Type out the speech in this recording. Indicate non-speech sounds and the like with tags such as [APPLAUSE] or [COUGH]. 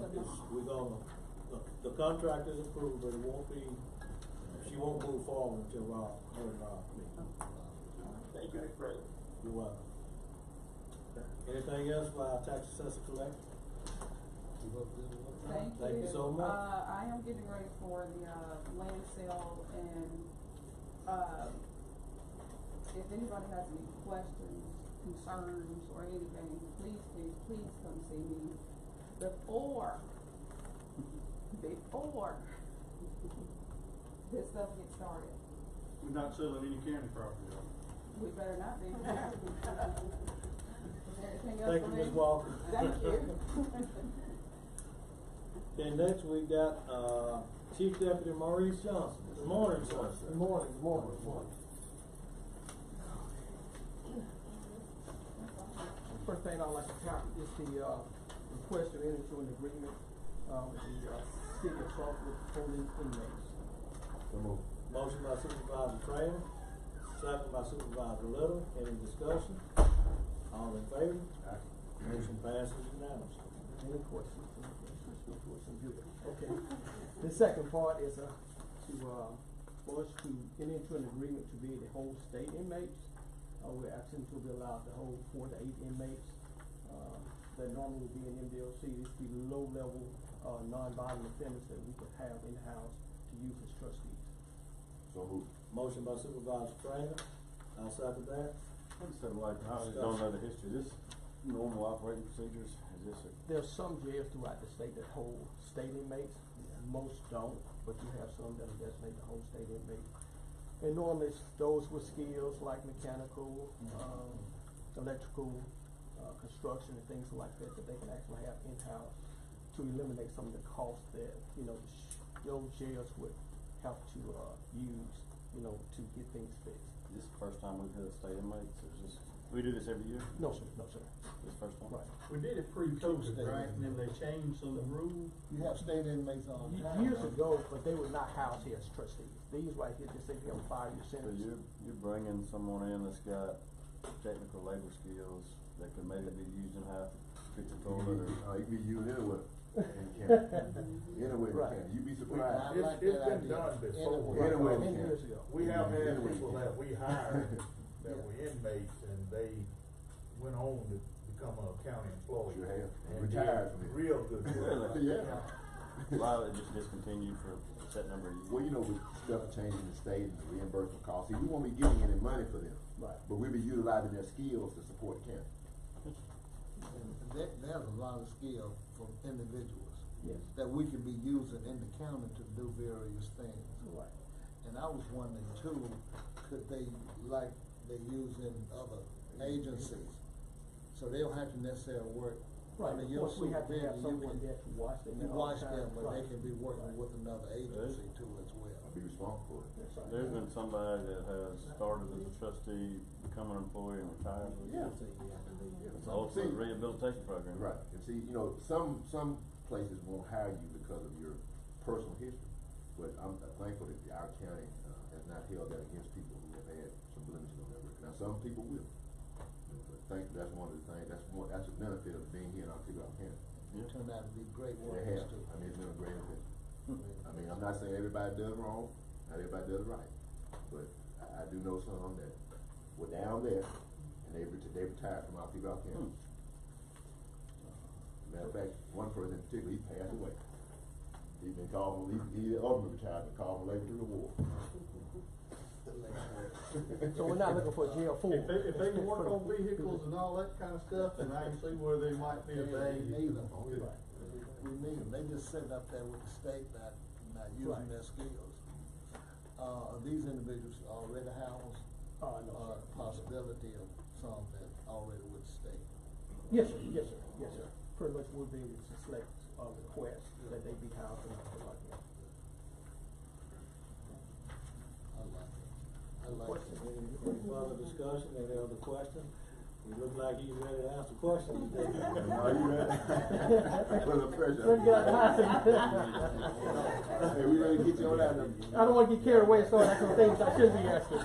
we're gonna, the, the contract is approved, but it won't be, she won't move forward until Rob, her and uh, Rob meet. Thank you, Craig. You're welcome. uh, Anything else for our tax assessor collector? Thank you. Thank you so much. Uh, I am getting ready for the, uh, land sale and, uh, if anybody has any questions, concerns, or anything, please, please, please come see me before, before [LAUGHS] this stuff gets started. We're not selling any county property, are We better not be. Is there anything else [LAUGHS] Thank for you, me? Ms. Walker. Thank you. [LAUGHS] Then next we got, uh, Chief Deputy Maurice Johnson. Good morning, sir. Good morning, good morning, good morning. First thing I'd like to talk is the, uh, request to enter into an agreement, uh, with the, uh, city of Salt with holding inmates. Motion by Supervisor Trainer, second by Supervisor Little, any discussion? All in favor? Motion passes unanimously. Any questions? No questions, good. Okay. The second part is, uh, to, uh, for us to enter into an agreement to be the whole state inmates. Uh, we're asking to be allowed to hold four to eight inmates, uh, that normally would be in MDLC. These be low-level, uh, non-violent offenders that we could have in-house to use as trustees. So moved. Motion by Supervisor Trainer, I second that. I just have like, I just don't know the history, this normal operating procedures, is this a? There's some jails throughout the state that hold state inmates. Most don't, but you have some that are designated to hold state inmates. And normally it's those with skills like mechanical, um, electrical, uh, construction and things like that, that they can actually have in-house to eliminate some of the costs that, you know, the sh- those jails would have to, uh, use, you know, to get things fixed. This is the first time we've had a state inmates, it's just, we do this every year, No, sir, no, sir, this first time? right. We did it pre-COVID, right, and then they changed some rule. You have state inmates all the time. Years huh? ago, but they were not housed here as trustees. These right here, just say you have a five-year So sentence. you're, you're bringing someone in that's got technical labor skills that could maybe be used in how fix a toilet or. Uh, [LAUGHS] you be used anywhere in county, anywhere in Right. county, you'd be I surprised. like It's- it's that idea. been done before. Anyway. Anyway. we Right, Many can. years ago. We have had Anyway. people that we [LAUGHS] hired that were inmates and they went on to become a county employee. You have. And did Retired from it. Real good. [LAUGHS] work. Really? Yeah, [LAUGHS] A lot of it just discontinued for a set number of years. well, you know, with stuff changing the state and the reimbursement costs, see, we won't be getting any money for them. Right. But we'll be utilizing their skills to support county. And There, there's a lot of skill from individuals. Yes. That we can be using in the county to do various things. Right. And I was wondering too, could they, like they use in other agencies? So they don't have to necessarily work Right, under of your course, we have to have supervision, you someone there can, to watch them you at all watch times, them, but they right. can be Right. working with another agency too as well. I'll be responsible for it. That's right. There's been somebody that has started as a trustee, become an employee and retired. Yeah. It's also a rehabilitation program. Right, and see, you know, some, some places won't hire you because of your personal history, but I'm uh, thankful that our county, uh, has not held that against people who have had some blemishes on their record, now, some people will. But thank, that's one of the things, that's one, that's a benefit of being here in Octavia County, Yeah. Turned out to be great they workers have, too. I mean, it's been a great event. I mean, I'm not saying everybody does wrong, not everybody does right, but I, I do know some that were down there, and they, ret- they retired from Octavia County. Hmm. Uh, Matter of fact, one person in particular, he passed away. He been called, he, he ultimately retired, but called for labor to the war. So we're not looking for a jail for. If they, if they can work on vehicles and all that kind of stuff, then I can see where they might be a They value. need 'em. We need 'em. they just sitting up there with the state not, not using Right. their skills. Uh, are these individuals already housed? Oh, Uh, no, Or sir. possibility of some that already with the state? Yes, sir, yes, sir, yes, sir. Pretty much we'll be able to select a request that they be housed in, something like that. I like it, I like it. Any further discussion, any other question? You look like you ready to ask a question. [LAUGHS] Are you ready? [LAUGHS] For the pressure. Good God. [LAUGHS] Hey, we ready to get you on out of there. I don't wanna get carried away and start asking things I shouldn't be asking.